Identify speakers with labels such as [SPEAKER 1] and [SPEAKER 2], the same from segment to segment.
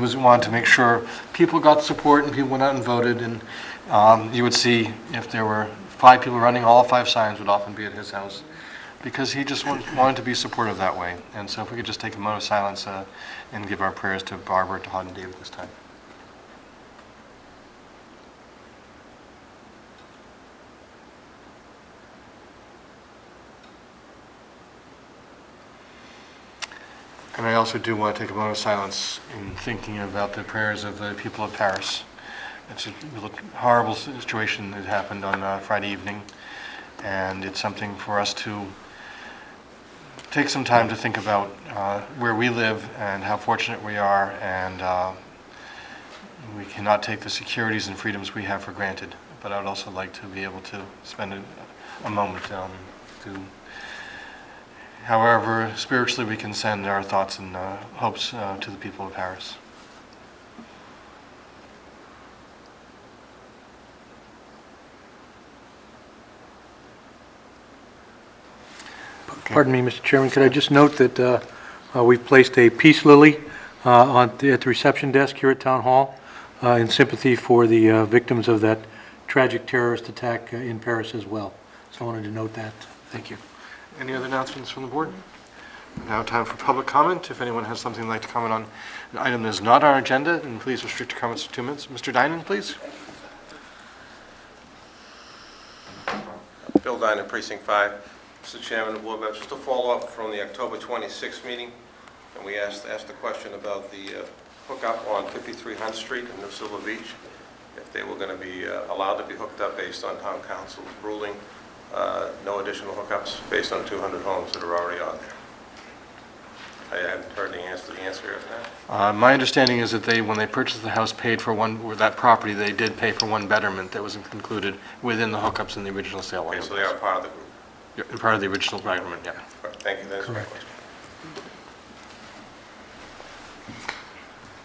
[SPEAKER 1] was we wanted to make sure people got support and people went out and voted, and um, you would see if there were five people running, all five signs would often be at his house, because he just wa- wanted to be supportive that way. And so if we could just take a moment of silence uh, and give our prayers to Barbara, to Hod and David this time. And I also do want to take a moment of silence in thinking about the prayers of the people of Paris. It's a real horrible situation that happened on uh, Friday evening, and it's something for us to take some time to think about uh, where we live and how fortunate we are, and uh, we cannot take the securities and freedoms we have for granted. But I would also like to be able to spend a- a moment um, to However, spiritually, we can send our thoughts and uh, hopes uh, to the people of Paris.
[SPEAKER 2] Pardon me, Mr. Chairman, could I just note that uh, uh, we've placed a peace lily uh, on, the- at the reception desk here at Town Hall uh, in sympathy for the uh, victims of that tragic terrorist attack uh, in Paris as well. So I wanted to note that. Thank you.
[SPEAKER 1] Any other announcements from the board? Now time for public comment. If anyone has something they'd like to comment on, an item that is not on our agenda, then please restrict your comments to two minutes. Mr. Dinan, please.
[SPEAKER 3] Bill Diner, Precinct 5. Mr. Chairman of the Board members, just a follow-up from the October 26th meeting, and we asked, asked the question about the uh, hookup on 53 Hunt Street in New Silver Beach, if they were going to be uh, allowed to be hooked up based on town council's ruling, uh, no additional hookups based on 200 homes that are already on there. I haven't heard the answer, the answer of that.
[SPEAKER 1] Uh, My understanding is that they, when they purchased the house, paid for one, or that property, they did pay for one betterment that was included within the hookups in the original sale.
[SPEAKER 3] Okay, so they are part of the group.
[SPEAKER 1] Yeah, Part of the original agreement, yeah.
[SPEAKER 3] All right, Thank you, that's my
[SPEAKER 2] Correct.
[SPEAKER 3] question.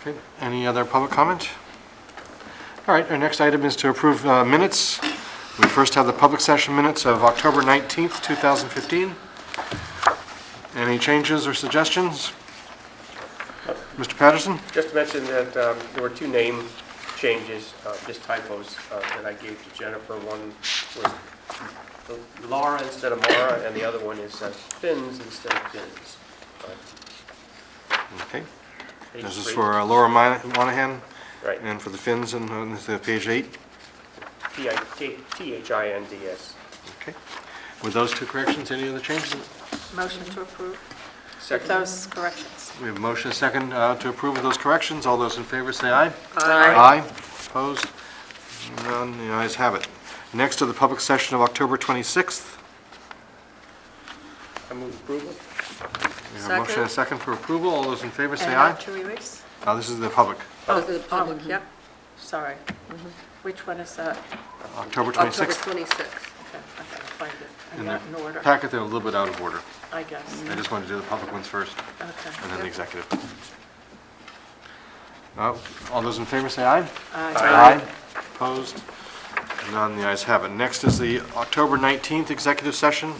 [SPEAKER 1] Okay, any other public comment? All right, our next item is to approve uh, minutes. We first have the public session minutes of October 19th, 2015. Any changes or suggestions? Mr. Patterson?
[SPEAKER 4] Just to mention that um, there were two name changes, uh, just typos, uh, that I gave to Jennifer. One was Laura instead of Mara, and the other one is uh, Fins instead of Fins. Uh,
[SPEAKER 1] Okay, this is for uh, Laura Mi- Monahan
[SPEAKER 4] Right,
[SPEAKER 1] and for the Finns and uh, this is page eight.
[SPEAKER 4] P I T T H I N D S.
[SPEAKER 1] Okay. With those two corrections, any other changes?
[SPEAKER 5] Motion to approve with
[SPEAKER 4] Second,
[SPEAKER 5] those corrections.
[SPEAKER 1] We have motion second uh, to approve of those corrections. All those in favor say aye.
[SPEAKER 5] Aye.
[SPEAKER 1] Aye. Opposed? None, the ayes have it. Next to the public session of October 26th.
[SPEAKER 4] I move approval.
[SPEAKER 1] We have a motion and a second for approval. All those in favor say
[SPEAKER 5] And
[SPEAKER 1] aye.
[SPEAKER 5] not to release?
[SPEAKER 1] Now, this is the public,
[SPEAKER 6] Oh, the public, Mm-hmm.
[SPEAKER 5] Yep, sorry. Which one is that?
[SPEAKER 1] October
[SPEAKER 6] October
[SPEAKER 1] 26th.
[SPEAKER 6] 26th.
[SPEAKER 5] Okay, I gotta find it. I
[SPEAKER 1] In
[SPEAKER 5] got it in
[SPEAKER 1] the
[SPEAKER 5] order,
[SPEAKER 1] packet, they're a little bit out of order.
[SPEAKER 5] I guess.
[SPEAKER 1] I just wanted to do the public ones first, and then the
[SPEAKER 5] Okay.
[SPEAKER 1] executive. Uh, All those in favor say aye.
[SPEAKER 5] Aye.
[SPEAKER 1] Aye. Opposed? None, the ayes have it. Next is the October 19th executive session.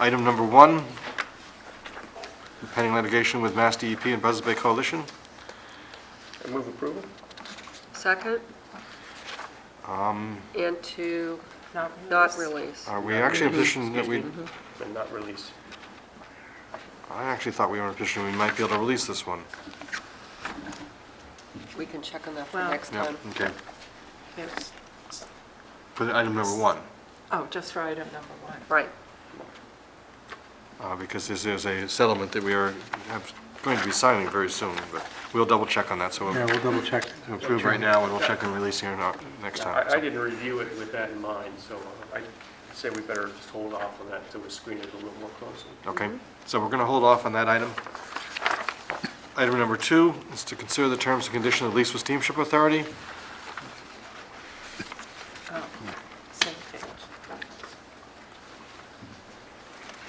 [SPEAKER 1] Item number one, pending litigation with Mass DEP and Buzzards Bay Coalition.
[SPEAKER 4] I move approval.
[SPEAKER 6] Second? And to not release.
[SPEAKER 1] Are we actually in a position Mm-hmm. that we,
[SPEAKER 4] And not release.
[SPEAKER 1] I actually thought we were in a position we might be able to release this one.
[SPEAKER 6] We can check on that for
[SPEAKER 5] Well-
[SPEAKER 6] next
[SPEAKER 1] Yeah,
[SPEAKER 6] time.
[SPEAKER 1] okay.
[SPEAKER 5] Yes.
[SPEAKER 1] For the item number one,
[SPEAKER 5] Oh, just for item number one.
[SPEAKER 6] Right.
[SPEAKER 1] uh, because this is a settlement that we are have- going to be signing very soon, but we'll double check on that, so
[SPEAKER 2] Yeah,
[SPEAKER 1] we'll
[SPEAKER 2] we'll double check.
[SPEAKER 1] we'll approve right now, and we'll check on releasing or not next time.
[SPEAKER 4] I I didn't review it with that in mind, so I say we better just hold off on that until we screen it a little more closely.
[SPEAKER 1] Okay, so we're going to hold off on that item. Item number two is to consider the terms and conditions of lease with Steamship Authority.
[SPEAKER 5] Same page.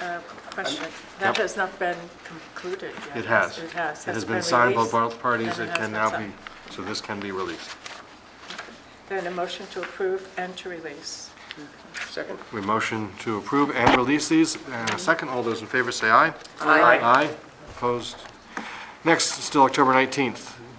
[SPEAKER 5] Uh, Question, that
[SPEAKER 1] Yep.
[SPEAKER 5] has not been concluded yet.
[SPEAKER 1] It has.
[SPEAKER 5] It has.
[SPEAKER 1] It has been signed by
[SPEAKER 5] released.
[SPEAKER 1] both parties,
[SPEAKER 5] and
[SPEAKER 1] it
[SPEAKER 5] it
[SPEAKER 1] can
[SPEAKER 5] has been
[SPEAKER 1] now be,
[SPEAKER 5] signed.
[SPEAKER 1] so this can be released.
[SPEAKER 5] Then a motion to approve and to release.
[SPEAKER 4] Second?
[SPEAKER 1] We motion to approve and release these, and a second, all those in favor say aye.
[SPEAKER 6] Aye.
[SPEAKER 1] Aye, opposed. Next, still October 19th,